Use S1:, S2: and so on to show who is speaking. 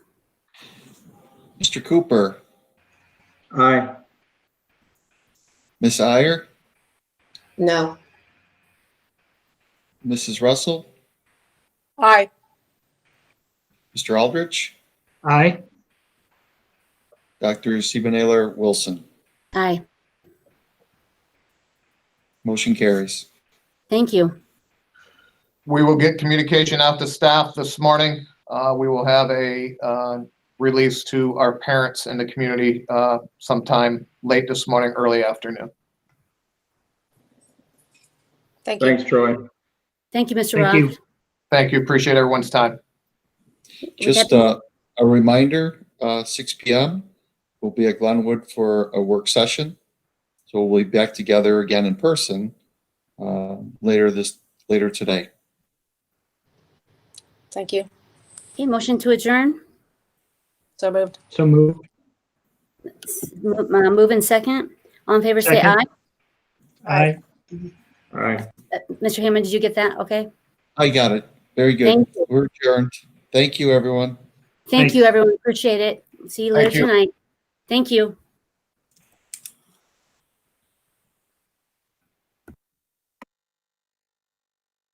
S1: Mr. Cooper,
S2: Aye.
S1: Ms. Iyer,
S3: No.
S1: Mrs. Russell,
S3: Aye.
S1: Mr. Aldrich,
S2: Aye.
S1: Dr. Sebanaler Wilson.
S4: Aye,
S1: Motion carries.
S4: thank you.
S5: We will get communication out to staff this morning. Uh, We will have a uh, release to our parents and the community uh, sometime late this morning, early afternoon.
S3: Thank you.
S2: Thanks, Troy.
S4: Thank you, Mr.
S2: Thank
S4: Roth.
S2: you.
S5: Thank you. Appreciate everyone's time.
S4: We have-
S1: Just uh, a reminder, uh, 6 PM, we'll be at Glenwood for a work session. So we'll be back together again in person uh, later this, later today.
S3: Thank you.
S4: Okay, motion to adjourn.
S3: So moved.
S2: So moved.
S4: S- mo- uh, Move in second. All in favor, say aye.
S2: Second. Aye. Aye.
S4: Mr. Hammond, did you get that? Okay.
S1: I got it. Very good.
S4: Thank you.
S1: We're adjourned. Thank you, everyone.
S4: Thank you, everyone. Appreciate it. See you later
S5: Thank you.
S4: tonight. Thank you.